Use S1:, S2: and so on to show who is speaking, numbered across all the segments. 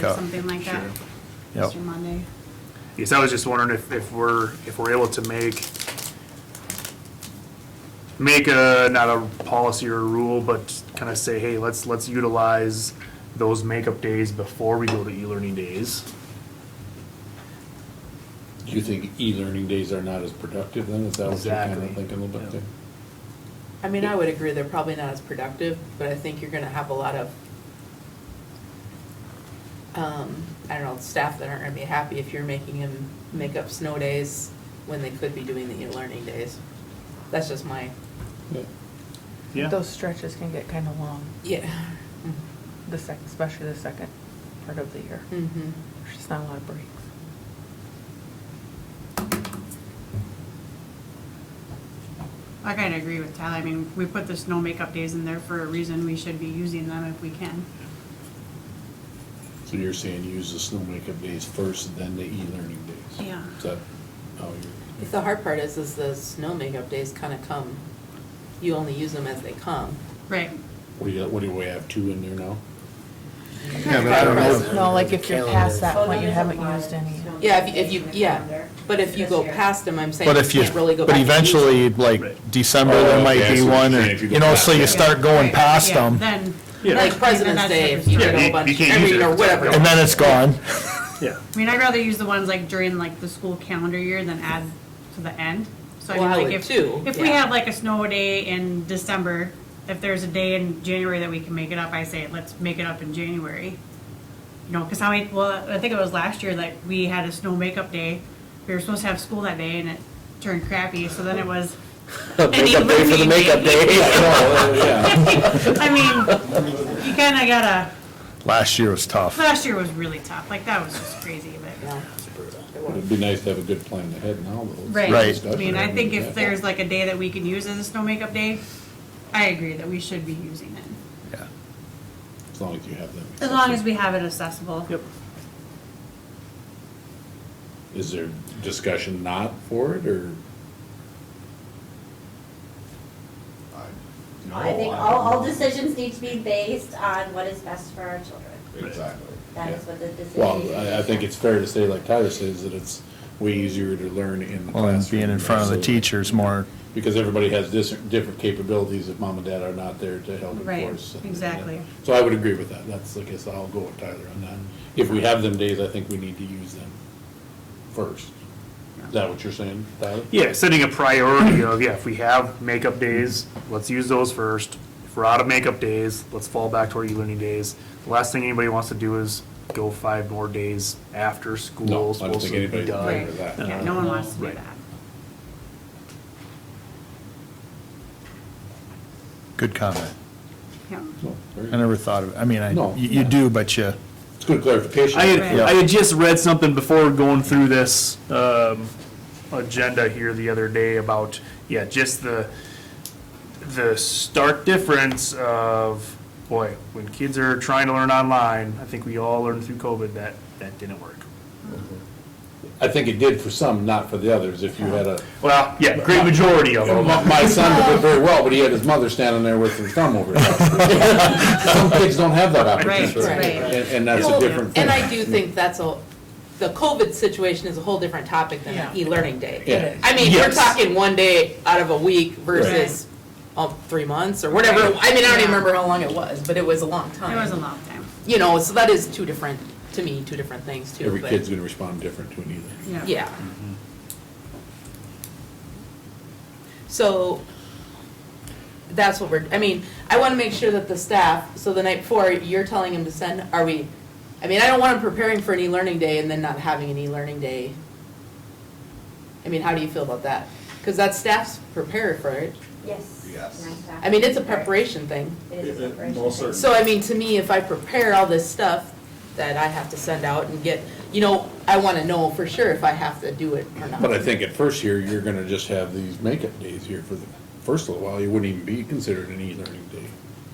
S1: Yeah.
S2: or something like that.
S1: Yep.
S2: Mr. Monday.
S3: Yes, I was just wondering if, if we're, if we're able to make, make a, not a policy or a rule, but kind of say, hey, let's, let's utilize those makeup days before we go to e-learning days.
S4: Do you think e-learning days are not as productive then? Is that what you're kind
S3: Exactly.
S4: of thinking a little bit
S3: Yeah.
S4: there?
S5: I mean, I would agree, they're probably not as productive, but I think you're gonna have a lot of, um, I don't know, staff that aren't gonna be happy if you're making them make up snow days when they could be doing the e-learning days. That's just my,
S4: Yeah.
S3: Yeah,
S6: Those stretches can get kind of long,
S5: yeah.
S6: the sec, especially the second part of the year.
S5: Mm-hmm.
S6: There's just not a lot of breaks.
S2: I kind of agree with Tyler. I mean, we put the snow makeup days in there for a reason. We should be using them if we can.
S4: So you're saying use the snow makeup days first, then the e-learning days?
S2: Yeah.
S4: Is that how
S5: The hard part is, is the snow makeup days kinda come, you only use them as they come.
S2: Right.
S4: you're, what do we have, two in there now?
S6: Yeah,
S4: but I don't know.
S6: No, like if you're past that
S7: Well,
S6: point, you
S7: there's a
S6: haven't
S7: lot
S6: used
S7: of
S6: any.
S7: snow
S5: Yeah, if, if
S7: days
S5: you,
S7: in the
S5: yeah,
S7: calendar
S5: but if you
S7: this
S5: go
S7: year.
S5: past them, I'm saying
S1: But
S5: you
S1: if you,
S5: can't really go back.
S1: but
S5: and use them.
S1: eventually, like
S3: Right.
S1: December,
S4: Oh,
S1: there might
S4: okay, I
S1: be
S4: see what
S1: one,
S4: you're
S1: or,
S4: saying, if you
S1: you
S4: go
S1: know, so
S4: back.
S1: you start going past
S2: Yeah,
S1: them,
S2: Then.
S3: Yeah.
S5: Like President's Day, if
S3: Yeah,
S5: you did a
S3: you-
S5: whole bunch,
S3: you can't use
S5: every,
S3: it if
S5: or
S3: it's
S5: whatever.
S3: open.
S1: and then it's gone.
S3: yeah.
S2: I mean, I'd rather use the ones like during like the school calendar year than add to the end. So I
S5: Well,
S2: mean,
S5: I
S2: like
S5: would
S2: if,
S5: too,
S2: if we
S5: yeah.
S2: have like a snow day in December, if there's a day in January that we can make it up, I say let's make it up in January. You know, because how many? Well, I think it was last year that we had a snow makeup day. We were supposed to have school that day, and it turned crappy. So then it was. makeup day for the makeup
S1: Oh,
S4: Yeah.
S2: I mean, you kind of gotta.
S1: Last year was tough.
S2: Last year was really tough. Like that was just crazy, but.
S5: Yeah.
S4: It'd be nice to have a good plan ahead now, though.
S2: Right.
S1: Right.
S2: I mean, I think if
S4: Yeah.
S2: there's like a day that we can use as a snow makeup day, I agree that we should be using it.
S1: Yeah.
S4: As long as you have them.
S2: As long as we have it accessible.
S3: Yep.
S4: Is there discussion not for it, or?
S8: No, I think all, all decisions need to be based on what is best for our children.
S4: Exactly.
S8: That is what the decision.
S4: Well, I, I think it's fair to say, like Tyler says, that it's way easier to learn in the
S1: Well,
S4: classroom.
S1: and being in front of the
S4: absolutely.
S1: teachers more,
S4: Because everybody has dis- different capabilities if mom and dad are not there to help
S2: Right,
S4: enforce. and-
S2: exactly.
S4: So I would agree with that. That's, I guess, I'll go with Tyler on that. If we have them days, I think we need to use them first. Is that what you're saying, Tyler?
S3: Yeah, setting a priority of, yeah, if we have makeup days, let's use those first. If we're out of makeup days, let's fall back to our e-learning days. The last thing anybody wants to do is go five more days after school.
S4: No, I don't
S3: supposed to
S4: think
S3: be
S4: anybody's in
S3: done.
S4: favor of that.
S2: Yeah, no one wants to do
S3: Right.
S2: that.
S1: good comment.
S2: Yeah.
S4: No, very
S1: I
S4: good.
S1: never thought of, it. I mean, I,
S4: No.
S1: you you do, but you,
S4: It's good clarification.
S3: I had,
S2: Yeah.
S3: I had just read something before going through this um, agenda here the other day about, yeah, just the, the stark difference of, boy, when kids are trying to learn online, I think we all learned through COVID that that didn't work.
S4: I think it did for some, not for the others. If you had a,
S3: Well, yeah, great majority of them.
S4: my my son did it very well, but he had his mother standing there with her thumb over his mouth. Some kids don't have that opportunity.
S2: Right, right.
S4: And, and that's a different thing.
S5: And I do think that's a, the COVID situation is a whole different topic than an
S6: Yeah.
S5: e-learning day.
S4: Yeah.
S5: I mean, we're
S3: Yes.
S5: talking one day out of a week versus, oh, three months or whatever. I mean, I don't even remember how long it was, but it was a long
S2: It
S5: time.
S2: was a long time.
S5: You know, so that is two different, to me, two different things too.
S4: Every
S5: but-
S4: kid's gonna respond different to an either.
S2: Yeah.
S5: Yeah. Mm-hmm. So, that's what we're, I mean, I wanna make sure that the staff, so the night before, you're telling them to send, are we, I mean, I don't want them preparing for an e-learning day and then not having an e-learning day. I mean, how do you feel about that? Cause that staff's prepared for it.
S8: Yes. Yes.
S5: I mean, it's a preparation thing.
S8: It is a preparation.
S5: So I mean, to me, if I prepare all this stuff that I have to send out and get, you know, I wanna know for sure if I have to do it or not.
S4: But I think at first here, you're gonna just have these makeup days here for the first little while. You wouldn't even be considered an e-learning day,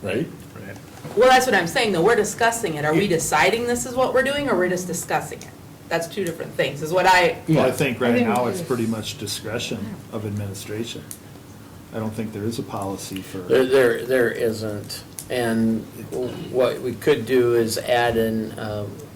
S4: right?
S3: Right.
S5: Well, that's what I'm saying, though, we're discussing it, are we deciding this is what we're doing, or we're just discussing it? That's two different things, is what I,
S9: Well, I
S4: Yeah.
S9: think
S6: I
S9: right
S6: think
S9: now
S6: we
S9: it's
S6: do.
S9: pretty much discretion of administration. I don't think there is a policy for,
S10: There, there, there isn't. And what we could do is add in, um,